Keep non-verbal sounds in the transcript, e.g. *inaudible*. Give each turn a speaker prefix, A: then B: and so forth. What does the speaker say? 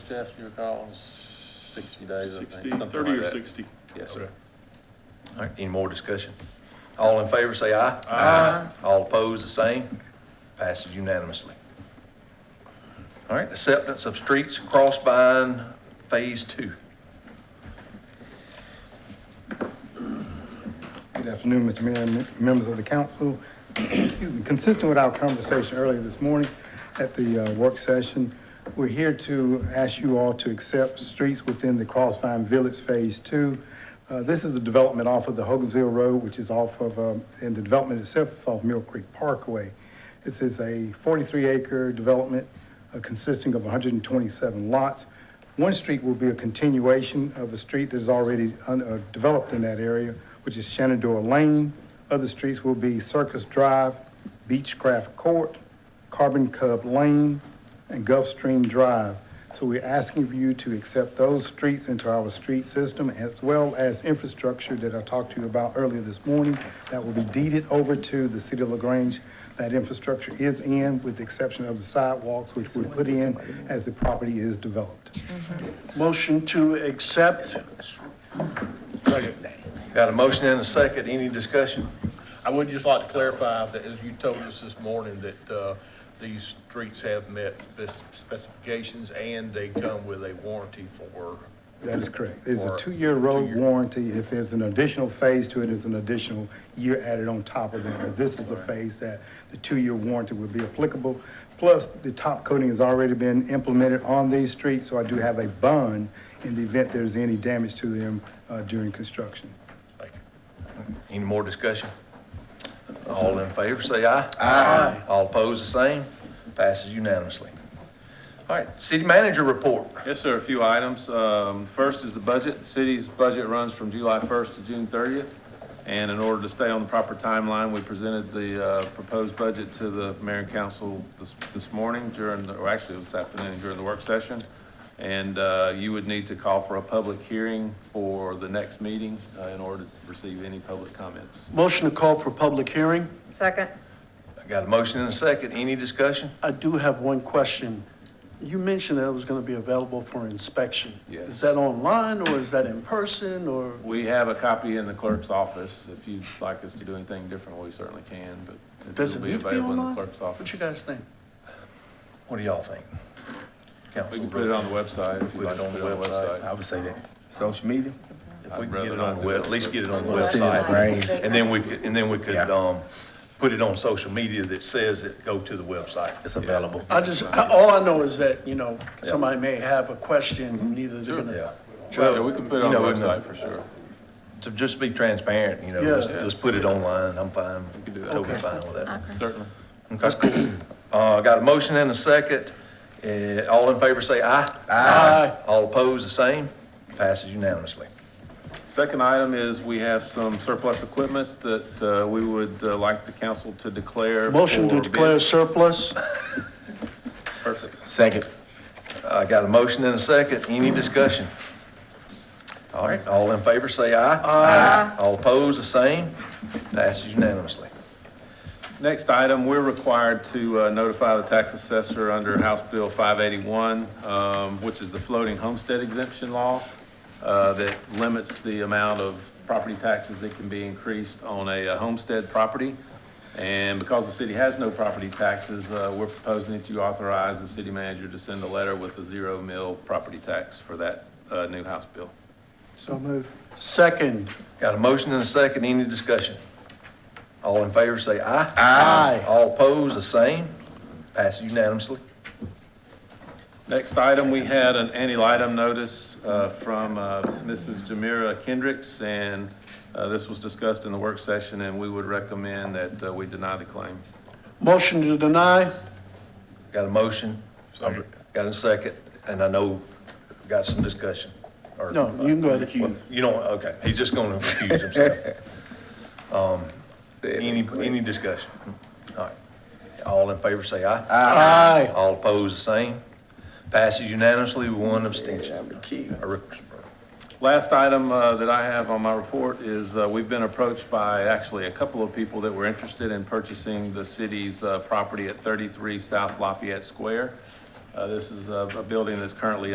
A: Jeff, you recall, sixty days, I think.
B: 60,
A: something
B: 30 or
A: like that.
B: 60.
A: Yes, sir.
C: Okay. All right, any more discussion? All in favor, say aye. Aye. All opposed, the same. Passes unanimously. All right, acceptance of streets and crossbind phase two.
D: Good afternoon, Mr. Mayor and members of the council. *clears throat* Excuse me. Consistent with our conversation earlier this morning at the uh, work session, we're here to ask you all to accept streets within the Crossvine Village Phase Two. Uh, This is the development off of the Hogansville Road, which is off of, um, and the development itself is off Mill Creek Parkway. This is a 43-acre development uh, consisting of 127 lots. One street will be a continuation of a street that is already un- uh, developed in that area, which is Shenandoah Lane. Other streets will be Circus Drive, Beechcraft Court, Carbon Cub Lane, and Gulfstream Drive. So we're asking for you to accept those streets into our street system as well as infrastructure that I talked to you about earlier this morning that will be deeded over to the city of LaGrange. That infrastructure is in with the exception of the sidewalks, which we put in as the property is developed.
E: Motion to accept.
C: Got a motion and a second, any discussion?
F: I would just like to clarify that, as you told us this morning, that uh, these streets have met spec- specifications and they come with a warranty for,
D: That is correct. It's a
F: Or
D: two-year road
F: two-year.
D: warranty. If there's an additional phase to it, it's an additional year added on top of that. But this is the phase that the two-year warranty would be applicable. Plus, the top coating has already been implemented on these streets, so I do have a bond in the event there's any damage to them uh, during construction.
F: like,
C: Any more discussion? All in favor, say aye. Aye. All opposed, the same. Passes unanimously. All right, city manager report.
A: Yes, sir, a few items. Um, First is the budget. The city's budget runs from July 1st to June 30th, and in order to stay on the proper timeline, we presented the uh, proposed budget to the mayor and council this this morning during, the- or actually it was this afternoon during the work session, and uh, you would need to call for a public hearing for the next meeting uh, in order to receive any public comments.
E: Motion to call for public hearing.
G: Second.
C: I Got a motion and a second, any discussion?
E: I do have one question. You mentioned that it was going to be available for inspection.
A: Yes.
E: Is that online or is that in person or?
A: We have a copy in the clerk's office. If you'd like us to do anything different, we certainly can, but
E: Does
A: it'll
E: it
A: be
E: need to be
A: available in the
E: online?
A: clerk's
E: What
A: office.
E: you guys think?
C: What do y'all think?
A: We can put it on the website if you'd like to put it on the website.
H: I would say that. Social media?
C: If we can get it on the web, at least get it on the
G: Well,
C: website.
H: right.
C: And then we could, and then we could,
H: Yeah.
C: um, put it on social media that says it, go to the website.
H: It's available.
E: I just, I- all I know is that, you know, somebody may have a
A: Mm-hmm.
E: question, neither they're going
C: Yeah.
E: to.
A: Yeah, we can put it on the
C: You know, and, uh,
A: website for sure.
C: To just be transparent, you know,
E: Yeah.
C: just, just put it online, I'm fine.
A: can do that.
C: Totally fine with that.
A: Certainly.
C: That's cool. Uh, got a motion and a second. Uh, all in favor say aye.
E: Aye.
C: All opposed, the same. Passes unanimously.
A: Second item is we have some surplus equipment that uh, we would uh, like the council to declare.
E: Motion to
A: for
E: declare
A: bid.
E: surplus.
A: Perfect.
H: Second.
C: I got a motion and a second. Any discussion? All right, all in favor say aye. Aye. All opposed, the same. Passes unanimously.
A: Next item, we're required to uh, notify the tax assessor under House Bill 581, um, which is the floating homestead exemption law uh, that limits the amount of property taxes that can be increased on a uh, homestead property. And because the city has no property taxes, uh, we're proposing that you authorize the city manager to send a letter with a zero mill property tax for that uh, new House bill.
E: So move. Second.
C: Got a motion and a second. Any discussion? All in favor say aye.
E: Aye.
C: All opposed, the same. Passes unanimously.
A: Next item, we had an anti-litem notice uh, from uh, Mrs. Jamira Kendricks, and uh, this was discussed in the work session, and we would recommend that uh, we deny the claim.
E: Motion to deny.
C: Got a motion? Got a second? And I know, got some discussion. or-
E: No, you can go ahead.
C: You don't, okay, he's just gonna accuse himself.
E: *laughs*
C: Um, Any, any discussion? All right. All in favor, say aye.
E: Aye.
C: All opposed, the same. Passes unanimously with one abstention. A re-
A: Last item uh, that I have on my report is, uh, we've been approached by actually a couple of people that were interested in purchasing the city's uh, property at 33 South Lafayette Square. Uh, This is a a building that's currently